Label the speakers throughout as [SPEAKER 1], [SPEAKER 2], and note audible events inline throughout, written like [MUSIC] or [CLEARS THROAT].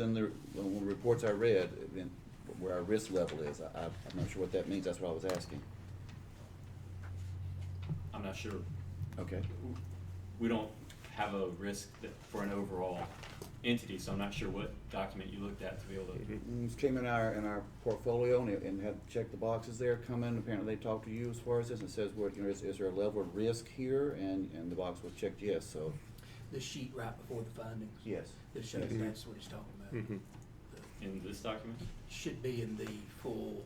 [SPEAKER 1] Then the, when the reports I read, then where our risk level is, I, I'm not sure what that means, that's what I was asking.
[SPEAKER 2] I'm not sure.
[SPEAKER 1] Okay,
[SPEAKER 2] We don't have a risk that, for an overall entity, so I'm not sure what document you looked at to be able to.
[SPEAKER 1] Mm, this came in our, in our portfolio and, it- and had checked the boxes there, come in, apparently they talked to you as far as this, and it says, well, you know, is, is there a level of risk here? And, and the box was checked yes, so,
[SPEAKER 3] the sheet right before the findings.
[SPEAKER 1] yes.
[SPEAKER 3] That shows
[SPEAKER 1] Yes.
[SPEAKER 3] that's what he's talking about.
[SPEAKER 4] Mhm.
[SPEAKER 2] In this document?
[SPEAKER 3] Should be in the full,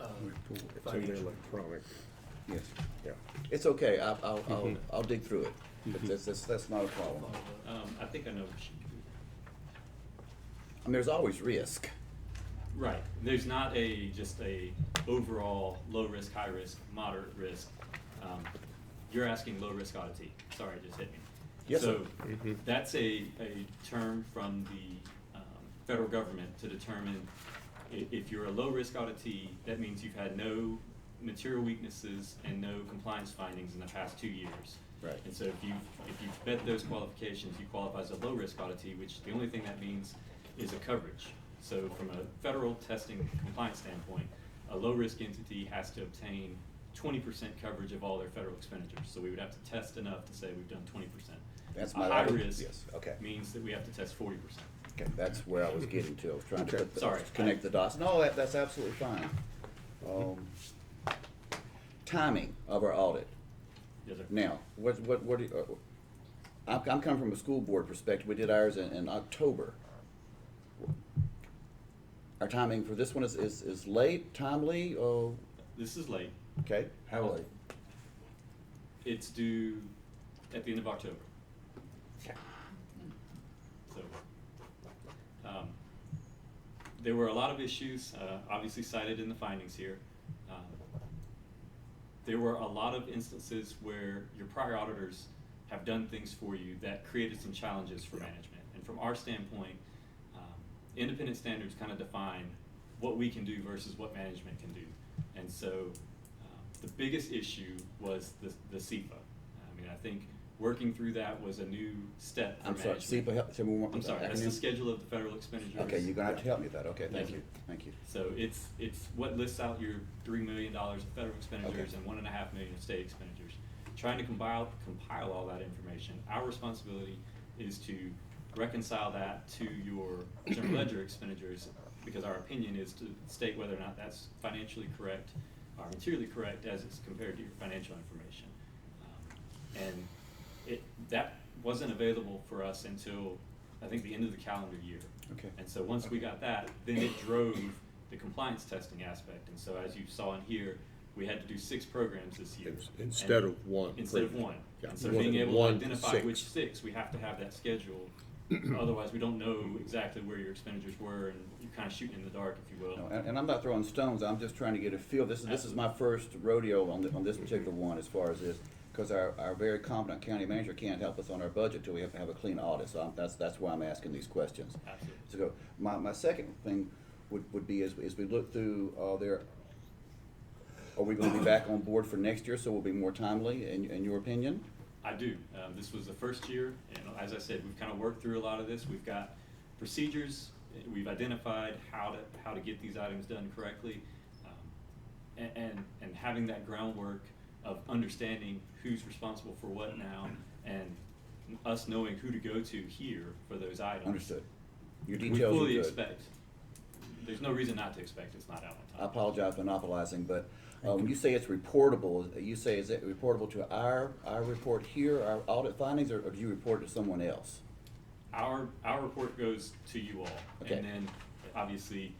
[SPEAKER 3] uh,
[SPEAKER 4] It's in the
[SPEAKER 3] financial.
[SPEAKER 4] electronic,
[SPEAKER 1] Yes,
[SPEAKER 4] yeah.
[SPEAKER 1] it's okay, I, I'll, I'll,
[SPEAKER 4] Mhm.
[SPEAKER 1] I'll dig through it, But that's, that's, that's not a problem.
[SPEAKER 3] follow-up.
[SPEAKER 2] Um, I think I know what you,
[SPEAKER 1] I mean, there's always risk,
[SPEAKER 2] right, there's not a, just a overall low risk, high risk, moderate risk. Um, You're asking low risk oddity, sorry, it just hit me.
[SPEAKER 1] Yes,
[SPEAKER 2] So,
[SPEAKER 1] sir. Mm-hmm.
[SPEAKER 4] Mhm.
[SPEAKER 2] that's a, a term from the, um, federal government to determine i- if you're a low-risk auditee, that means you've had no material weaknesses and no compliance findings in the past two years.
[SPEAKER 1] Right.
[SPEAKER 2] And so if you, if you met those qualifications, you qualify as a low-risk auditee, which the only thing that means is a coverage. So from a federal testing compliance standpoint, a low-risk entity has to obtain twenty percent coverage of all their federal expenditures. So we would have to test enough to say we've done twenty percent.
[SPEAKER 1] That's
[SPEAKER 2] A
[SPEAKER 1] my-
[SPEAKER 2] High risk
[SPEAKER 1] yes, okay.
[SPEAKER 2] means that we have to test forty percent.
[SPEAKER 1] okay, that's where I was getting to, I was trying to
[SPEAKER 4] Okay.
[SPEAKER 1] put the-
[SPEAKER 2] Sorry.
[SPEAKER 1] connect the dots, no, that, that's absolutely fine. Um, Timing of our audit.
[SPEAKER 2] Yes, sir.
[SPEAKER 1] Now, what, what, what, do you- uh, I'm, I'm coming from a school board perspective, we did ours in, in October. Our timing for this one is, is, is late, timely, oh,
[SPEAKER 2] This is late.
[SPEAKER 1] okay, how late?
[SPEAKER 2] It's due at the end of October. So, um, there were a lot of issues, uh, obviously cited in the findings here. Um, There were a lot of instances where your prior auditors have done things for you that created some challenges for management. And from our standpoint, um, independent standards kind of define what we can do versus what management can do. And so, um, the biggest issue was the, the SEPA. I mean, I think working through that was a new step for
[SPEAKER 1] I'm sorry,
[SPEAKER 2] management.
[SPEAKER 1] SEPA, help, tell me one.
[SPEAKER 2] I'm sorry, that's the
[SPEAKER 1] acronym.
[SPEAKER 2] schedule of the federal expenditures.
[SPEAKER 1] Okay, you're gonna have to help me with that, okay, thank
[SPEAKER 2] Thank
[SPEAKER 1] you,
[SPEAKER 2] you.
[SPEAKER 1] thank you.
[SPEAKER 2] So it's, it's what lists out your three million dollars of federal expenditures
[SPEAKER 1] Okay.
[SPEAKER 2] and one and a half million of state expenditures. Trying to compile, compile all that information, our responsibility is to reconcile that to your
[SPEAKER 1] [CLEARS THROAT]
[SPEAKER 2] general ledger expenditures, because our opinion is to state whether or not that's financially correct, or materially correct as it's compared to your financial information. Um, And it, that wasn't available for us until, I think, the end of the calendar year.
[SPEAKER 1] Okay.
[SPEAKER 2] And so once we got that, then it drove the compliance testing aspect. And so as you saw in here, we had to do six programs this year.
[SPEAKER 4] Ins- instead
[SPEAKER 2] And-
[SPEAKER 4] of one
[SPEAKER 2] Instead of
[SPEAKER 4] program.
[SPEAKER 2] one.
[SPEAKER 4] Yeah.
[SPEAKER 2] And so
[SPEAKER 4] One-
[SPEAKER 2] being able to
[SPEAKER 4] one to
[SPEAKER 2] identify
[SPEAKER 4] six.
[SPEAKER 2] which six, we have to have that schedule. Otherwise, we don't know exactly where your expenditures were and you're kind of shooting in the dark, if you will.
[SPEAKER 1] No, And, and I'm not throwing stones, I'm just trying to get a feel, this is, this is my first rodeo on, the- on this particular one as far as this, because our, our very competent county manager can't help us on our budget till we have, have a clean audit, so I'm, that's, that's why I'm asking these questions.
[SPEAKER 2] Absolutely.
[SPEAKER 1] So go, my, my second thing would, would be is, is we look through, uh, their, are we gonna be back on board for next year, so we'll be more timely, in, in your opinion?
[SPEAKER 2] I do. Um, this was the first year, and as I said, we've kind of worked through a lot of this. We've got procedures. eh, We've identified how to how to get these items done correctly, um, and, and and having that groundwork of understanding who's responsible for what now, and us knowing who to go to here for those items.
[SPEAKER 1] Understood. Your
[SPEAKER 2] We
[SPEAKER 1] details are
[SPEAKER 2] fully
[SPEAKER 1] good.
[SPEAKER 2] expect. There's no reason not to expect it's not out on time.
[SPEAKER 1] I apologize for monopolizing, but uh, when you say it's reportable, you say is it reportable to our, our report here, our audit findings, or or do you report it to someone else?
[SPEAKER 2] Our, our report goes to you all.
[SPEAKER 1] Okay.
[SPEAKER 2] And then, obviously,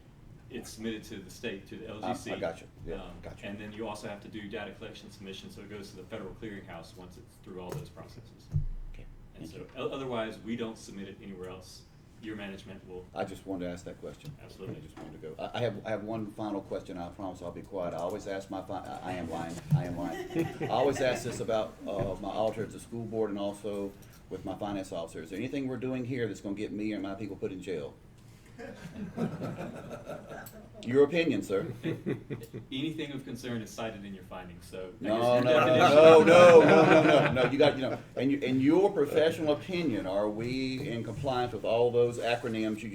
[SPEAKER 2] it's submitted to the state, to the LGC.
[SPEAKER 1] Ah, I got you. Yeah,
[SPEAKER 2] Um,
[SPEAKER 1] got you.
[SPEAKER 2] And then you also have to do data collection submission, so it goes to the federal clearinghouse once it's through all those processes.
[SPEAKER 1] Okay.
[SPEAKER 2] And so, o- otherwise, we don't submit it anywhere else. Your management will,
[SPEAKER 1] I just wanted to ask that question.
[SPEAKER 2] Absolutely.
[SPEAKER 1] I just wanted to go. I, I have, I have one final question. I promise I'll be quiet. I always ask my fi- I- I am lying, I am lying. I always ask this about, uh, my auditor at the school board and also with my finance officer. Is there anything we're doing here that's gonna get me or my people put in jail?
[SPEAKER 3] [LAUGHS]
[SPEAKER 1] Your opinion, sir. [LAUGHS]
[SPEAKER 2] anything of concern is cited in your findings, so. I guess
[SPEAKER 1] No, no,
[SPEAKER 2] your definition-
[SPEAKER 1] no, no, no,
[SPEAKER 2] [LAUGHS]
[SPEAKER 1] no, no, no, you got, you know, in, your- in your professional opinion, are we in compliance with all those acronyms you